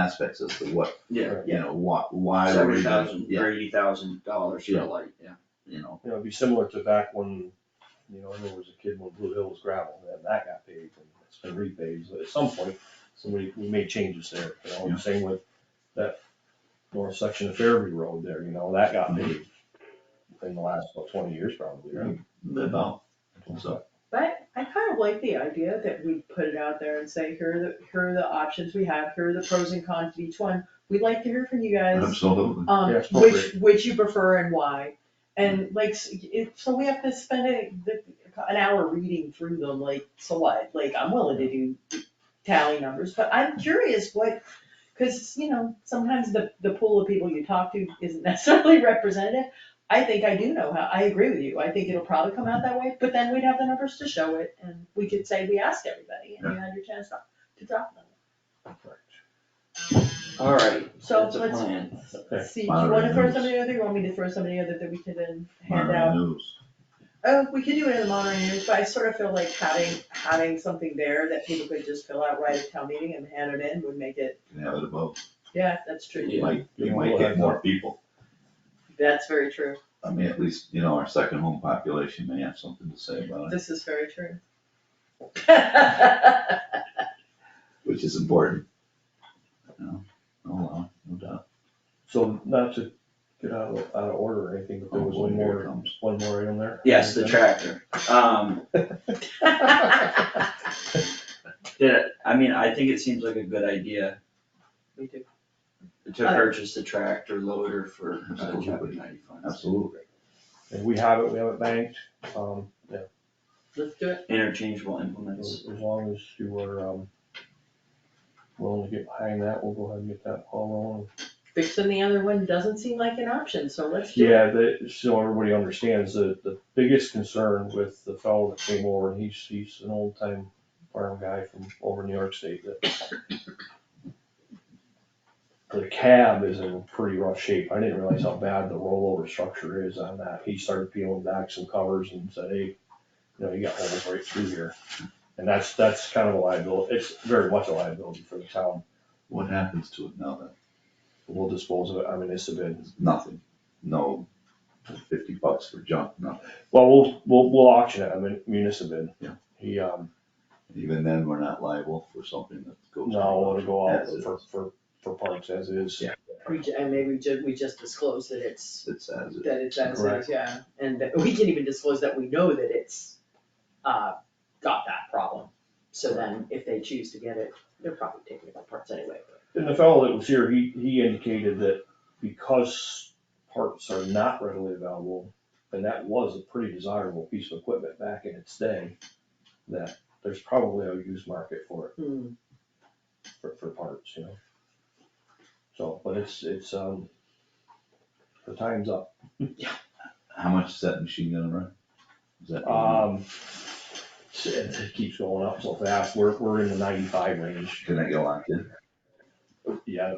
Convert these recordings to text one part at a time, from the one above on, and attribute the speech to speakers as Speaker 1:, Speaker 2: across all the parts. Speaker 1: aspects as to what,
Speaker 2: Yeah,
Speaker 1: you know, why, why were
Speaker 2: seventy
Speaker 1: we doing-
Speaker 2: thousand
Speaker 1: yeah,
Speaker 2: or eighty thousand dollars for
Speaker 1: Yeah.
Speaker 2: a light, yeah.
Speaker 1: you know,
Speaker 3: You know, it'd be similar to back when, you know, I remember was a kid when Blue Hill was gravel, and that got paved, and it's been repaved, but at some point, somebody, we made changes there, you know,
Speaker 1: Yeah.
Speaker 3: and same with that north section of Fairview Road there, you know, that got
Speaker 1: Mhm.
Speaker 3: paved in the last, about twenty years probably, right?
Speaker 1: about, so,
Speaker 4: But I kind of like the idea that we put it out there and say, here are the, here are the options we have, here are the pros and cons of each one. We'd like to hear from you guys,
Speaker 1: absolutely.
Speaker 4: um,
Speaker 3: Yeah, it's Mm-hmm.
Speaker 4: which, which you prefer and why. And like, s- it, so we have to spend a, the, an hour reading through them, like, so what? Like, I'm willing to do tally numbers, but I'm curious what, cause, you know, sometimes the, the pool of people you talk to isn't necessarily representative. I think I do know how, I agree with you, I think it'll probably come out that way, but then we'd have the numbers to show it, and we could say we asked everybody, and you had your chance to, to drop them.
Speaker 2: Alright,
Speaker 4: So
Speaker 2: that's a
Speaker 4: let's-
Speaker 2: plan.
Speaker 3: Okay.
Speaker 4: See, do you wanna
Speaker 1: Monterey
Speaker 4: throw
Speaker 1: News.
Speaker 4: somebody other, you want me to throw somebody other that we can then hand
Speaker 1: Monterey
Speaker 4: out?
Speaker 1: News,
Speaker 4: Oh, we could do it in the Monterey News, but I sort of feel like having, having something there that people could just fill out right at town meeting and hand it in would make it,
Speaker 1: you can have it above,
Speaker 4: yeah, that's true,
Speaker 1: you might, you
Speaker 3: Yeah.
Speaker 1: might get more people,
Speaker 4: that's very true,
Speaker 1: I mean, at least, you know, our second home population may have something to say about it,
Speaker 4: this is very true.
Speaker 1: which is important. You know, oh, well, no doubt,
Speaker 3: So not to get out of, out of order or anything, but there was
Speaker 1: Oh,
Speaker 3: one
Speaker 1: here it
Speaker 3: more,
Speaker 1: comes.
Speaker 3: one more item there?
Speaker 2: Yes, the tractor, um, did, it- I mean, I think it seems like a good idea
Speaker 4: We do,
Speaker 2: to
Speaker 4: Uh.
Speaker 2: purchase the tractor loader for uh, chapter
Speaker 1: Absolutely.
Speaker 2: ninety funds.
Speaker 1: absolutely,
Speaker 3: And we have it, we have it banked, um, yeah,
Speaker 4: let's do it.
Speaker 2: Interchangeable
Speaker 3: as
Speaker 2: implements,
Speaker 3: as long as you are, um, willing to get behind that, we'll go ahead and get that ball rolling.
Speaker 4: Fixing the other one doesn't seem like an option, so let's do it.
Speaker 3: Yeah, the, so everybody understands that the biggest concern with the fellow that came over, and he's, he's an old time farm guy from over in New York State that the cab is in pretty rough shape. I didn't realize how bad the rollover structure is on that. He started peeling back some covers and said, hey, you know, you got holes right through here. And that's, that's kind of a liability. It's very much a liability for the town.
Speaker 1: what happens to it now
Speaker 3: We'll dispose of it. I mean, it's a bid.
Speaker 1: then, nothing, no fifty bucks for junk, nothing,
Speaker 3: Well, we'll, we'll, we'll auction it, I mean, municipal bid.
Speaker 1: Yeah.
Speaker 3: He, um,
Speaker 1: even then, we're not liable for something that goes.
Speaker 3: no, it'll go out
Speaker 1: As it
Speaker 3: for,
Speaker 1: is.
Speaker 3: for, for parks as is.
Speaker 1: Yeah.
Speaker 4: We, ju- and maybe we just, we just disclose that it's,
Speaker 1: It's as it is.
Speaker 4: that it's, as
Speaker 3: Correct.
Speaker 4: is, yeah, and that, we can even disclose that we know that it's, uh, got that problem. So then, if they choose to get it, they're probably taking it apart anyway, but.
Speaker 3: And the fellow that was here, he, he indicated that because parts are not readily available, and that was a pretty desirable piece of equipment back in its day, that there's probably a used market for it,
Speaker 4: Hmm,
Speaker 3: for, for parts, you know? So, but it's, it's, um, the time's up.
Speaker 1: How much is that machine gonna run? Is that?
Speaker 3: Um, it it keeps going up so fast, we're, we're in the ninety-five range,
Speaker 1: Can I get locked in?
Speaker 3: yeah,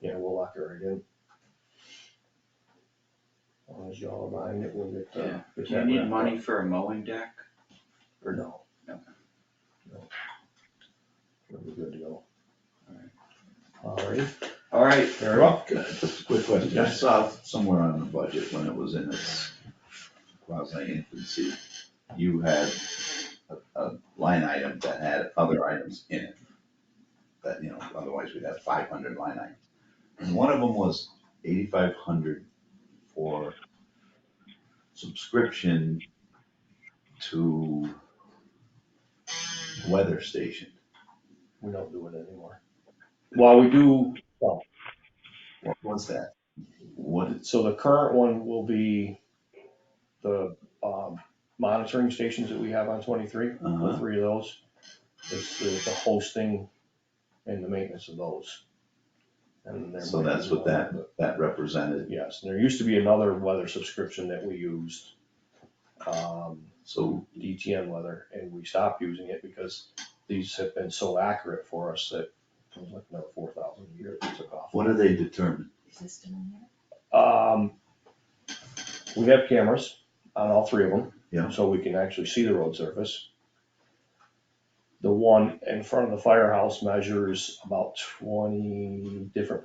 Speaker 3: yeah, we'll lock it right in. As long as y'all are behind it, we'll get, uh,
Speaker 2: Yeah.
Speaker 3: get
Speaker 2: do you
Speaker 3: that
Speaker 2: need
Speaker 3: wrapped
Speaker 2: money for a mowing deck?
Speaker 3: up. Or no?
Speaker 2: No.
Speaker 3: No. We're good to go.
Speaker 2: Alright.
Speaker 3: Alright,
Speaker 2: Alright,
Speaker 3: very well,
Speaker 1: Can I- Just a quick question, I saw uh, somewhere on the budget when it was in its quasi infancy, you had a, a line item that had other items in it. That, you know, otherwise we'd have five hundred line items. And one of them was eighty-five hundred for subscription to weather station.
Speaker 3: we don't do it anymore. Well, we do,
Speaker 1: What was that? What is,
Speaker 3: so the current one will be the, um, monitoring stations that we have on twenty-three. the
Speaker 1: uh,
Speaker 3: three of those, it's the, the hosting and the maintenance of those. And there
Speaker 1: so
Speaker 3: might be
Speaker 1: that's what
Speaker 3: one
Speaker 1: that,
Speaker 3: other,
Speaker 1: that represented.
Speaker 3: but Yes, and there used to be another weather subscription that we used, um,
Speaker 1: So
Speaker 3: DTN weather, and we stopped using it because these have been so accurate for us that it was like another four thousand a year that took off.
Speaker 1: what do they determine?
Speaker 4: is this still in there?
Speaker 3: Um, we have cameras on all three of them.
Speaker 1: Yeah.
Speaker 3: So we can actually see the road surface. The one in front of the firehouse measures about twenty different